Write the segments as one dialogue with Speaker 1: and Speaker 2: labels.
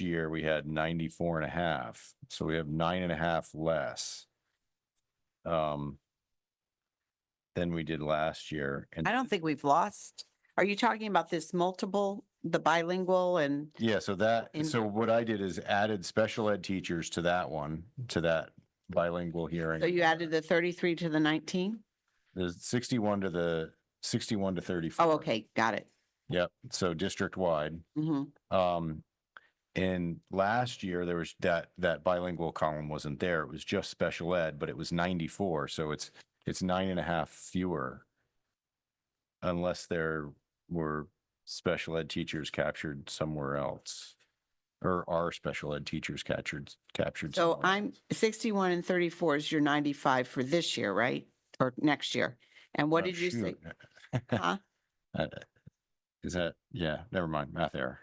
Speaker 1: year, we had 94 and a half, so we have nine and a half less. Um. Than we did last year. and
Speaker 2: I don't think we've lost. Are you talking about this multiple, the bilingual and,
Speaker 1: Yeah, so that,
Speaker 2: In-
Speaker 1: so what I did is added special ed teachers to that one, to that bilingual hearing.
Speaker 2: so you added the thirty-three to the nineteen?
Speaker 1: The sixty-one to the, sixty-one to thirty-four.
Speaker 2: Oh, okay, got it.
Speaker 1: Yep, so district-wide.
Speaker 2: hmm
Speaker 1: Um, and last year there was that, that bilingual column wasn't there. It was just special ed, but it was ninety-four, so it's, it's nine and a half fewer. Unless there were special ed teachers captured somewhere else. Or are special ed teachers captured, captured.
Speaker 2: So
Speaker 1: somewhere
Speaker 2: I'm sixty-one and thirty-four is your ninety-five for this year, right? Or next year? And what
Speaker 1: Oh,
Speaker 2: did you say?
Speaker 1: shoot.
Speaker 2: Huh?
Speaker 1: Uh, Is that, yeah, never mind, math error.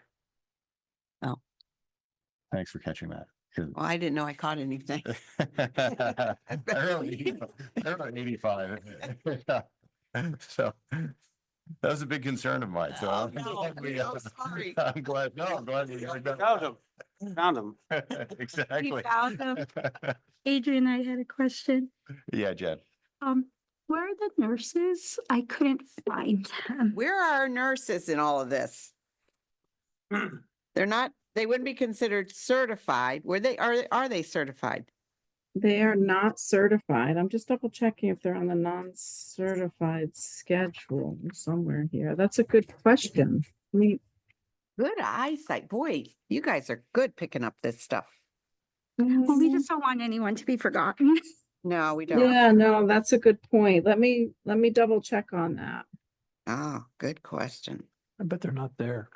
Speaker 2: Oh.
Speaker 1: Thanks for catching that. 'cause-
Speaker 2: Well, I didn't know I caught anything.
Speaker 1: I wrote an eighty-five. So that was a big concern of mine, so.
Speaker 2: Oh,
Speaker 1: I'm
Speaker 2: no,
Speaker 1: glad we,
Speaker 2: I'm
Speaker 1: uh,
Speaker 2: sorry.
Speaker 1: I'm glad, no, I'm glad. we heard
Speaker 3: Found
Speaker 1: that.
Speaker 3: him, found him.
Speaker 1: Exactly.
Speaker 4: found him. Adrian, I had a question.
Speaker 1: Yeah, Jen.
Speaker 4: Um, where are the nurses? I couldn't find them.
Speaker 2: Where are our nurses in all of this? They're not, they wouldn't be considered certified. Were they, are, are they certified?
Speaker 5: They are not certified. I'm just double checking if they're on the non-certified schedule somewhere here. That's a good question. I mean,
Speaker 2: Good eyesight. Boy, you guys are good picking up this stuff.
Speaker 4: Well, we just don't want anyone to be forgotten.
Speaker 2: No, we don't.
Speaker 5: yeah, no, that's a good point. Let me, let me double check on that.
Speaker 2: Oh, good question.
Speaker 6: I bet they're not there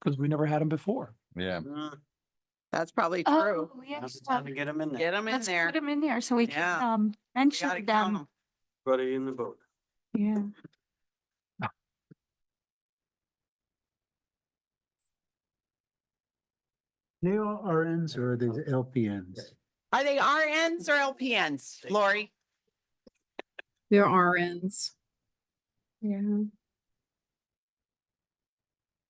Speaker 6: because we never had them before.
Speaker 1: Yeah,
Speaker 2: That's probably
Speaker 4: Oh,
Speaker 2: true.
Speaker 4: yeah.
Speaker 3: Now's the time Mm, to get him in
Speaker 2: Get
Speaker 3: there.
Speaker 2: them in
Speaker 4: Let's
Speaker 2: there.
Speaker 4: put them in there so we can,
Speaker 2: Yeah.
Speaker 4: um,
Speaker 2: We gotta
Speaker 4: mention
Speaker 2: count
Speaker 4: them.
Speaker 2: 'em.
Speaker 3: Everybody in the boat.
Speaker 4: Yeah.
Speaker 7: They all RNs or are they LPNs?
Speaker 2: Are they RNs or LPNs, Lori?
Speaker 5: They're RNs.
Speaker 4: Yeah.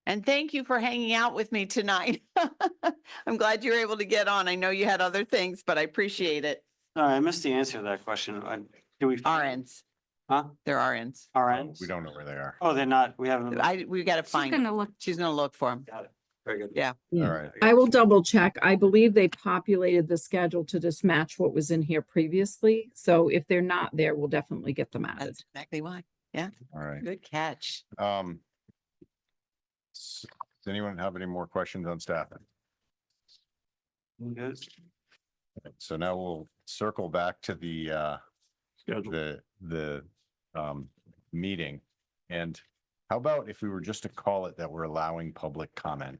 Speaker 2: And thank you for hanging out with me tonight. I'm glad you were able to get on. I know you had other things, but I appreciate it.
Speaker 3: No, I missed the answer to that question. I- Do we?
Speaker 2: RNs,
Speaker 3: Huh?
Speaker 2: they're RNs.
Speaker 3: RNs?
Speaker 1: we don't know where they are.
Speaker 3: Oh, they're not, we haven't.
Speaker 2: I, we gotta
Speaker 4: She's
Speaker 2: find, 'em.
Speaker 4: gonna look.
Speaker 2: she's gonna look for them.
Speaker 3: Got it. Very good.
Speaker 2: Yeah.
Speaker 1: All
Speaker 5: Yeah.
Speaker 1: right.
Speaker 5: I will double check. I believe they populated the schedule to just match what was in here previously. So if they're not there, we'll definitely get them added.
Speaker 2: That's exactly why.
Speaker 1: All right.
Speaker 2: Good catch.
Speaker 1: Um. s- Does anyone have any more questions on staffing?
Speaker 3: Good.
Speaker 1: So now we'll circle back to the, uh,
Speaker 6: Schedule.
Speaker 1: the, the, um, meeting. And how about if we were just to call it that we're allowing public comment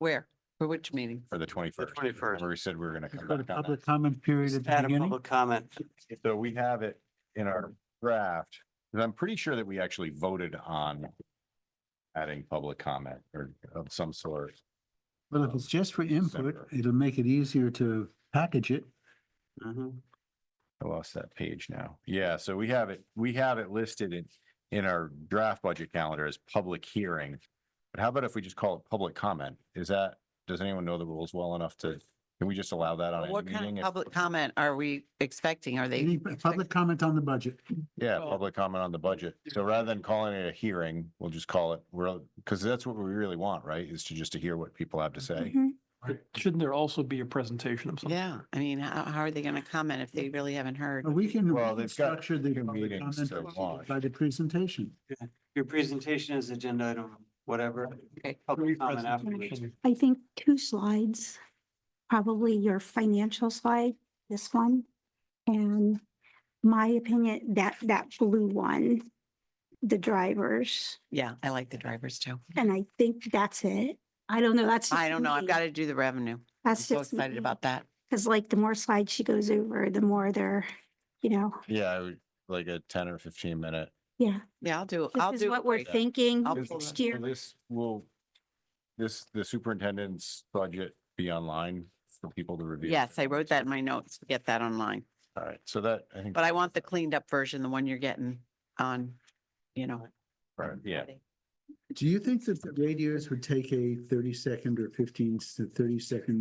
Speaker 2: Where? For which meeting?
Speaker 1: for the twenty-first?
Speaker 3: 21st.
Speaker 1: Where we said we were gonna come
Speaker 7: Put a
Speaker 1: back on
Speaker 7: public comment period at
Speaker 3: Just
Speaker 7: the
Speaker 3: Add a
Speaker 7: beginning.
Speaker 3: public comment.
Speaker 1: that. So we have it in our draft, and I'm pretty sure that we actually voted on adding public comment or of some sort.
Speaker 7: Well, if it's just for input,
Speaker 1: Separate.
Speaker 7: it'll make it easier to package it.
Speaker 3: Mhm.
Speaker 1: I lost that page now. Yeah, so we have it, we have it listed in, in our draft budget calendar as public hearing. But how about if we just call it public comment? Is that, does anyone know the rules well enough to, can we just allow that on
Speaker 2: What
Speaker 1: any
Speaker 2: kind
Speaker 1: meeting?
Speaker 2: of
Speaker 1: If-
Speaker 2: public comment are we expecting? Are
Speaker 7: Any
Speaker 2: they?
Speaker 7: p- public comment on the budget.
Speaker 1: Yeah, public comment on the budget. So rather than calling it a hearing, we'll just call it, we're, because that's what we really want, right? Is to just to hear what people have to
Speaker 2: Mm-hmm.
Speaker 1: say.
Speaker 4: Mhm.
Speaker 6: Shouldn't there also be a presentation of something?
Speaker 2: Yeah, I mean, how, how are they gonna comment if they really haven't heard?
Speaker 7: Or We can
Speaker 1: Well,
Speaker 7: we can
Speaker 1: they've got
Speaker 7: structure the
Speaker 1: two
Speaker 7: public
Speaker 1: meetings
Speaker 7: comment
Speaker 1: to launch.
Speaker 7: by the presentation.
Speaker 3: Your presentation is agenda item, whatever.
Speaker 2: Okay.
Speaker 3: Public comment afterwards.
Speaker 6: Presentation.
Speaker 4: I think two slides, probably your financial slide, this one. And my opinion, that, that blue one, the drivers,
Speaker 2: Yeah, I like the drivers too.
Speaker 4: and I think that's it. I don't know, that's.
Speaker 2: I don't know. I've got to do the revenue. I'm
Speaker 4: That's
Speaker 2: so
Speaker 4: just.
Speaker 2: excited about that.
Speaker 4: Cause like the more slides she goes over, the more they're, you know,
Speaker 1: Yeah, I would- like a ten or fifteen minute.
Speaker 4: yeah,
Speaker 2: Yeah, I'll do, I'll
Speaker 4: this is
Speaker 2: do.
Speaker 4: what we're
Speaker 1: Yeah.
Speaker 4: thinking
Speaker 2: I'll
Speaker 1: Is-
Speaker 2: pull
Speaker 4: next
Speaker 2: that-
Speaker 4: year.
Speaker 1: will This will, this, the superintendent's budget be online for people to review?
Speaker 2: Yes, I wrote that in my notes. Get that online.
Speaker 1: All right, so that, I think.
Speaker 2: But I want the cleaned up version, the one you're getting on, you know.
Speaker 1: Right, yeah,
Speaker 2: Friday.
Speaker 7: Do you think that the radios would take a thirty second or fifteen to thirty second